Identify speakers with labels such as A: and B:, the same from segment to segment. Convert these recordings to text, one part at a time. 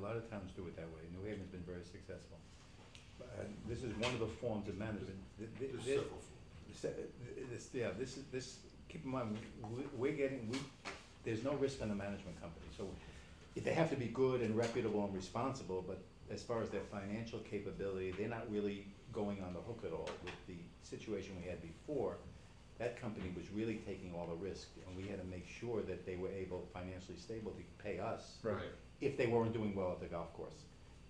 A: lot of towns do it that way. New Haven's been very successful. And this is one of the forms of management. Th- th-
B: There's
A: th-
B: several forms.
A: Se- This, yeah, this is, this, keep in mind, we- we're getting, we, there's no risk on the management company, so if they have to be good and reputable and responsible, but as far as their financial capability, they're not really going on the hook at all with the situation we had before. That company was really taking all the risk, and we had to make sure that they were able, financially stable, to pay us
B: Right.
A: if they weren't doing well at the golf course.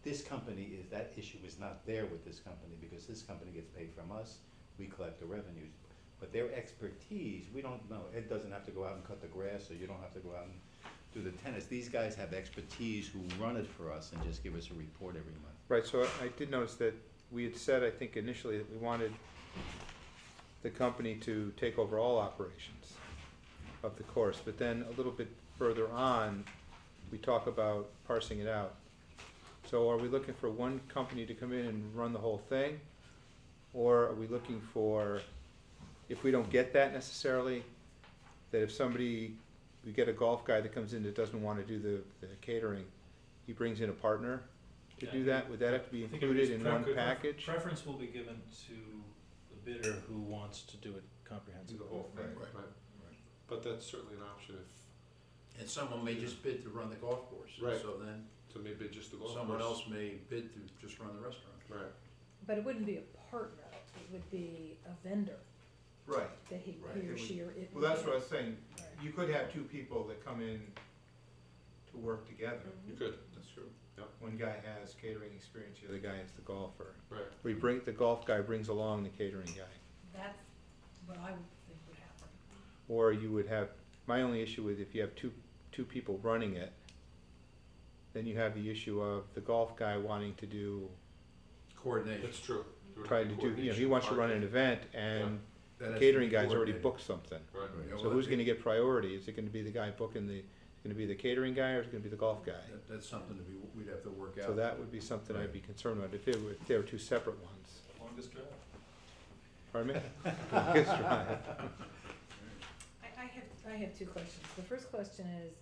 A: This company is, that issue is not there with this company, because this company gets paid from us, we collect the revenues. But their expertise, we don't know, Ed doesn't have to go out and cut the grass, or you don't have to go out and do the tennis. These guys have expertise who run it for us and just give us a report every month.
C: Right, so I- I did notice that we had said, I think initially, that we wanted the company to take over all operations of the course, but then a little bit further on, we talk about parsing it out. So are we looking for one company to come in and run the whole thing? Or are we looking for, if we don't get that necessarily, that if somebody, we get a golf guy that comes in that doesn't wanna do the, the catering, he brings in a partner to
D: Yeah, I
C: do that? Would that have to be
D: I think it would
C: included
D: just
C: in
D: pref-
C: one
D: pref-
C: package?
D: Preference will be given to the bidder who wants to do it comprehensively.
B: Right, right. But that's certainly an option if,
E: And someone may just bid to run the golf course.
B: Right.
E: So then
B: so maybe just the golf course.
E: someone else may bid to just run the restaurant.
B: Right,
F: But it wouldn't be a partner, it would be a vendor
C: Right.
F: that he,
E: Right.
F: he
C: It
F: or
C: would-
F: she or it.
C: Well, that's
F: would
C: what I
F: be.
C: was saying,
F: Right.
C: you could have two people that come in to work together.
B: you could,
E: That's true.
C: One guy has catering experience, the other guy is the golfer.
B: right.
C: We bring, the golf guy brings along the catering guy.
F: That's what I would think would happen.
C: Or you would have, my only issue is if you have two, two people running it, then you have the issue of the golf guy wanting to do,
E: Coordination.
B: That's true. There would
C: trying
B: be
C: to do, you know, he
B: coordination,
C: wants to run an
B: marketing.
C: event and
E: That has to
C: the catering
E: be
C: guy's already
E: coordinated.
C: booked something.
B: Right,
E: Yeah,
C: So
E: well,
C: who's
E: that-
C: gonna get priority? Is it gonna be the guy booking the, is it gonna be the catering guy or is it gonna be the golf guy?
E: that- That's something to be, we'd have to work out.
C: So that would be something I'd be concerned about, if they were, if they were two separate ones.
D: Longest drive.
C: Pardon me? Longest drive.
F: I, I have, I have two questions. The first question is,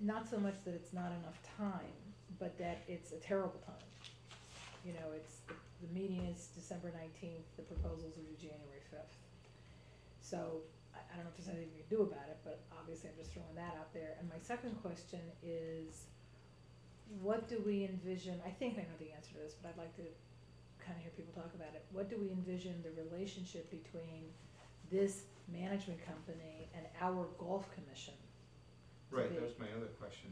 F: not so much that it's not enough time, but that it's a terrible time. You know, it's, the- the meeting is December nineteenth, the proposals are due January fifth. So, I, I don't know if there's anything we can do about it, but obviously I'm just throwing that out there. And my second question is, what do we envision, I think I know the answer to this, but I'd like to kinda hear people talk about it. What do we envision the relationship between this management company and our golf commission.
C: Right, that was my other question.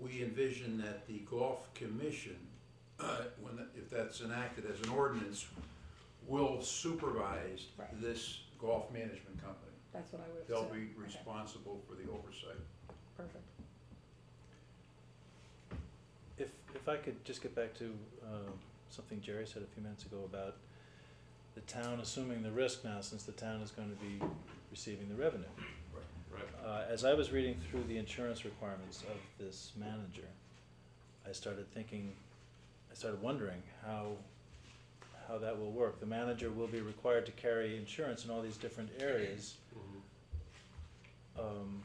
E: We envision that the golf commission, uh, when, that- if that's enacted as an ordinance, will supervise
F: Right.
E: this golf management company.
F: That's what I would have
E: They'll
F: said.
E: be
F: Okay,
E: responsible for the oversight.
F: Perfect.
D: If, if I could just get back to um, something Jerry said a few minutes ago about the town assuming the risk now, since the town is going to be receiving the revenue.
B: right.
D: Uh, As I was reading through the insurance requirements of this manager, I started thinking, I started wondering how, how that will work. The manager will be required to carry insurance in all these different areas.
B: Mhm.
D: Um,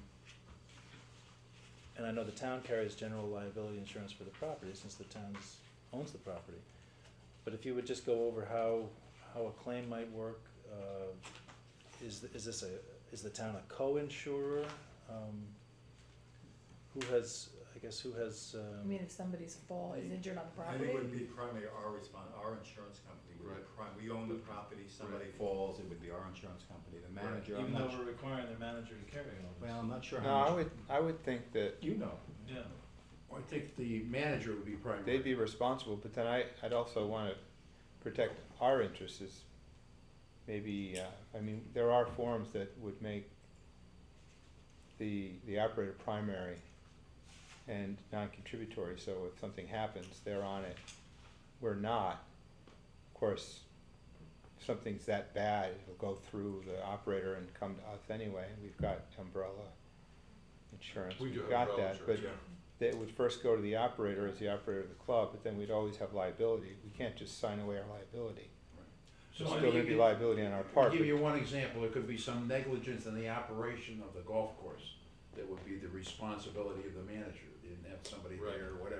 D: And I know the town carries general liability insurance for the property, since the town owns the property. But if you would just go over how, how a claim might work, uh, is, th- is this a, is the town a co-insurer? Um, Who has, I guess, who has,
F: I
D: um,
F: mean, if somebody's fall is injured on the
A: I think
F: property,
A: it would be primarily our respon our insurance company would be
B: Right.
A: prime, we own the property, somebody
B: Right.
A: falls, it would be our insurance company, the manager, I'm
D: even
A: not
D: though
A: su-
D: we're requiring the manager to carry
A: well,
D: all
A: I'm not sure
C: No,
A: how much.
C: I would, I would think that
A: You know.
D: this? Yeah.
E: I think the manager would be primary.
C: they'd be responsible, but then I, I'd also wanna protect our interests is maybe, uh, I mean, there are forms that would make the, the operator primary and non-contributory, so if something happens, they're on it. We're not, of course, if something's that bad, it'll go through the operator and come to us anyway, we've got umbrella insurance,
B: We do
C: we've
B: have
C: got
B: umbrella
C: that, but
B: insurance, yeah.
C: that would first go to the operator as the operator of the club, but then we'd always have liability. We can't just sign away our liability.
E: So,
C: There's
E: I
C: still
E: mean,
C: gonna
E: you
C: be
E: could-
C: liability on our part.
E: Give
C: but-
E: you one example, it could be some negligence in the operation of the golf course that would be the responsibility of the manager, didn't have somebody
B: Right.
E: there or whatever.